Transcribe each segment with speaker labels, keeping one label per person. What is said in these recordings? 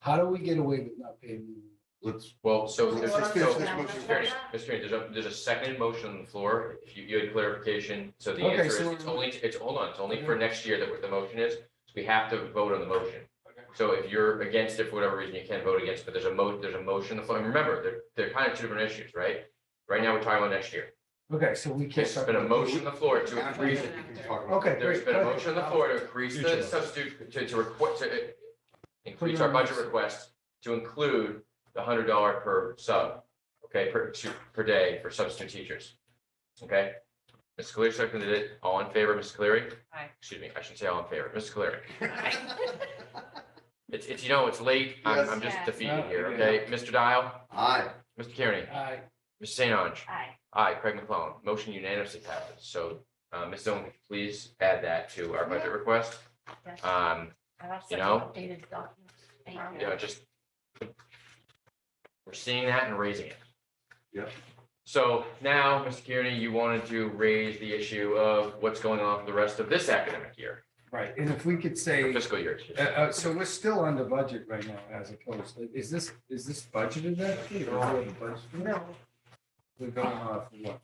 Speaker 1: How do we get away with not paying?
Speaker 2: Let's,
Speaker 3: Well, so
Speaker 2: Let's
Speaker 3: there's,
Speaker 2: just finish this
Speaker 3: so,
Speaker 2: motion
Speaker 3: Mr.
Speaker 2: first.
Speaker 3: Attorney, Mr. Attorney, there's a, there's a second motion on the floor. If you, you had clarification, so the
Speaker 1: Okay,
Speaker 3: answer is,
Speaker 1: so
Speaker 3: it's
Speaker 1: we're- Mhm.
Speaker 3: only, it's, hold on, it's only for next year that what the motion is. So We have to vote on the motion. So if you're against it for whatever reason, you can vote against, but there's a mo, there's a motion on the floor. And remember, they're, they're kind of two different issues, right? Right now, we're talking about next year.
Speaker 1: Okay, so we can't.
Speaker 3: There's
Speaker 1: start
Speaker 3: been a motion on the floor to
Speaker 2: after we
Speaker 3: increase,
Speaker 2: can talk about.
Speaker 1: Okay.
Speaker 3: there's
Speaker 1: great.
Speaker 3: been a motion on the floor to increase the
Speaker 1: Future.
Speaker 3: substitute, to, to request, to uh, increase our budget request to include the hundred dollar per sub, okay, per, to- per day for substitute teachers. Okay? Ms. Cleary seconded it. All in favor, Ms. Cleary?
Speaker 4: Aye.
Speaker 3: Excuse me, I should say all in favor. Ms. Cleary?
Speaker 2: it.
Speaker 3: It's, it's, you know, it's late. I'm, I'm just
Speaker 4: Yes.
Speaker 3: defeated
Speaker 1: Oh, Yeah.
Speaker 3: here, okay? Mr. Dial,
Speaker 2: Aye.
Speaker 3: Mr. Kearney,
Speaker 1: Aye.
Speaker 3: Ms. St. Ange,
Speaker 4: Aye.
Speaker 3: aye, Craig McClellan. Motion unanimously passes. So, uh, Ms. Owen, could you please add that to our budget request.
Speaker 4: Yes.
Speaker 3: Um,
Speaker 4: I have
Speaker 3: You
Speaker 4: such an
Speaker 3: know?
Speaker 4: updated document. Thank
Speaker 3: you know, just we're seeing that and raising it.
Speaker 2: Yep.
Speaker 3: So now, Mr. Kearney, you wanted to raise the issue of what's going on for the rest of this academic year,
Speaker 1: Right, and if we could say,
Speaker 3: fiscal year. excuse
Speaker 1: uh,
Speaker 3: me.
Speaker 1: uh, so we're still under budget right now as opposed, to- is this, is this budgeted actually? or is it budgeted?
Speaker 4: No,
Speaker 1: We're going off what?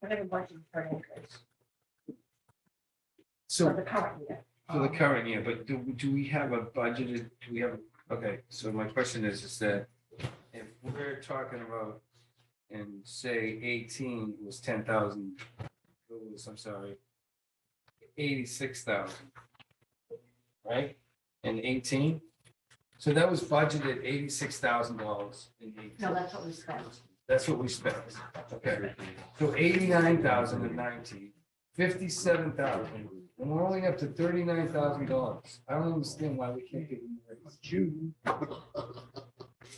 Speaker 4: we're gonna budget for an increase for
Speaker 1: So
Speaker 4: the current year.
Speaker 1: for the current year, but do, do we have a budgeted, do we have, okay, so my question is, is that if we're talking about, and say eighteen was ten thousand, I'm sorry, eighty-six thousand, right? And eighteen, so that was budgeted eighty-six thousand dollars in eighteen,
Speaker 4: No, that's what we spent.
Speaker 1: that's what we spent, okay? So eighty-nine thousand in nineteen, fifty-seven thousand and we're only up to thirty-nine thousand dollars. I don't understand why we can't get more raise. June.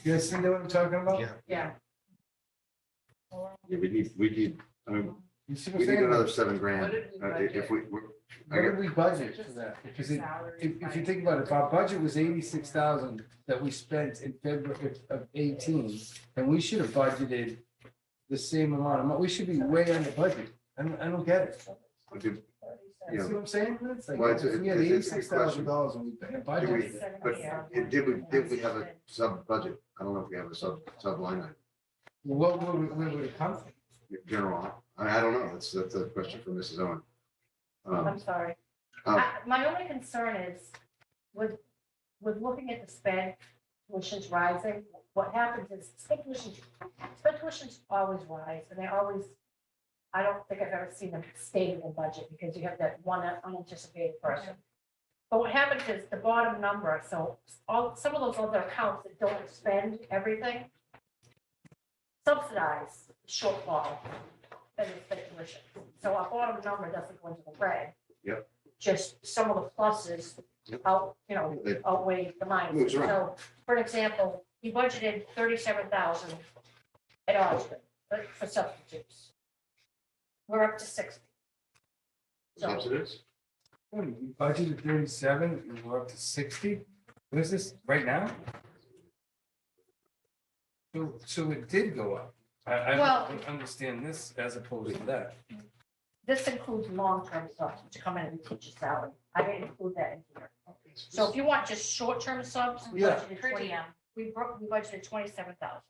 Speaker 1: You guys see what I'm talking about?
Speaker 2: Yeah.
Speaker 4: Yeah.
Speaker 2: Yeah, we need, we need, I mean,
Speaker 1: You see what
Speaker 2: we
Speaker 1: I'm
Speaker 2: need
Speaker 1: saying?
Speaker 2: another seven
Speaker 4: What
Speaker 2: grand.
Speaker 4: did we
Speaker 2: Uh, i- If
Speaker 4: budget?
Speaker 2: we, we're-
Speaker 1: What did we budget for that? Because it- if, if you think about it, if our budget was eighty-six thousand that we spent in February of- of eighteen, and we should have budgeted the same amount, Am I- we should be way under budget. I don't, I don't get it.
Speaker 2: if you-
Speaker 1: You see what I'm saying? It's like,
Speaker 2: Well, it's a-
Speaker 1: if we had
Speaker 2: it's- it's a
Speaker 1: eighty-six thousand dollars and we
Speaker 2: Do we-
Speaker 1: budgeted it.
Speaker 2: but it- did we, did we have a sub budget? I don't know if we have a sub, sub line item,
Speaker 1: What would, we- where would it come from?
Speaker 2: general, I, I don't know, that's, that's a question for Mrs. Owen. Um,
Speaker 4: I'm sorry.
Speaker 2: uh,
Speaker 4: I- My only concern is with, with looking at the spend, tuition's rising, what happens is sped tuition, sped tuitions always rise and they always, I don't think I've ever seen them stay in the budget because you have that one unanticipated person. But what happens is the bottom number, so all, some of those other accounts that don't spend everything subsidize shortfall in the sped tuition. So our bottom number doesn't go into the red.
Speaker 2: Yep.
Speaker 4: Just some of the pluses
Speaker 2: Yep.
Speaker 4: out, you know,
Speaker 2: It
Speaker 4: outweigh the
Speaker 2: Moves
Speaker 4: minus.
Speaker 2: around.
Speaker 4: So, for example, he budgeted thirty-seven thousand at Austin but for substitutes. We're up to sixty. So,
Speaker 2: Subsidies?
Speaker 1: What, We budgeted thirty-seven and we're up to sixty? What is this, right now? So, so it did go up. I, I
Speaker 4: Well-
Speaker 1: don't understand this as opposed to that.
Speaker 4: this includes long-term subs to come in and teach a salary. I didn't include that in here. So if you want just short-term subs, we
Speaker 1: Yeah.
Speaker 4: budgeted twenty, we bro- we budgeted twenty-seven thousand.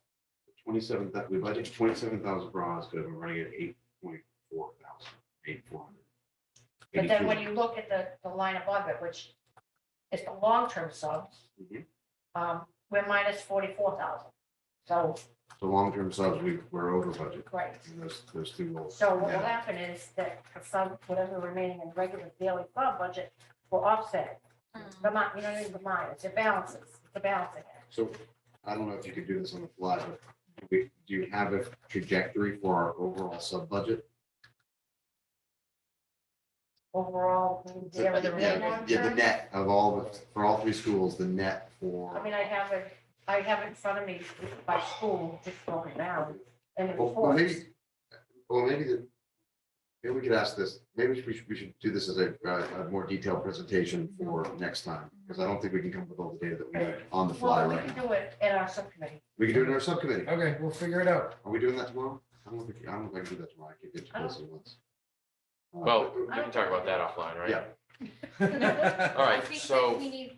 Speaker 2: Twenty-seven, that, we budgeted twenty-seven thousand for Osgood, we're running at eight point four thousand, eight four hundred.
Speaker 4: But then when you look at the, the line above it, which is the long-term subs,
Speaker 2: Mhm.
Speaker 4: um, we're minus forty-four thousand. So,
Speaker 2: The long-term subs, we, we're over budget,
Speaker 4: right.
Speaker 2: and those, those two will.
Speaker 4: So what will
Speaker 2: Yeah.
Speaker 4: happen is that the sub, whatever remaining in regular daily fund budget will offset. The mon, you know, what I mean, the minus, it balances, it's a balancing act.
Speaker 2: So I don't know if you could do this on the fly, but do we, do you have a trajectory for our overall sub budget?
Speaker 4: Overall, we
Speaker 2: So,
Speaker 4: daily
Speaker 2: yeah,
Speaker 4: rate.
Speaker 2: Yeah, the net of all, the for all three schools, the net
Speaker 4: I
Speaker 2: for,
Speaker 4: mean, I have it, I have it in front of me by school, just going down. And it
Speaker 2: Well, well, maybe-
Speaker 4: reports.
Speaker 2: well, maybe the, maybe we could ask this, maybe we should, we should do this as a, uh, a more detailed presentation for next time, because I don't think we can come up with all the data that we have on the fly
Speaker 4: Well, we
Speaker 2: right
Speaker 4: can
Speaker 2: now.
Speaker 4: do it at our subcommittee.
Speaker 2: We can do it in our subcommittee.
Speaker 1: Okay, we'll figure it out.
Speaker 2: Are we doing that tomorrow? I don't think, I don't think I can do that tomorrow. I can get to
Speaker 4: Oh.
Speaker 2: this at once. Uh,
Speaker 3: Well, we can talk about that offline, right?
Speaker 2: Yeah.
Speaker 3: All right,
Speaker 5: I think that
Speaker 3: so-
Speaker 5: We need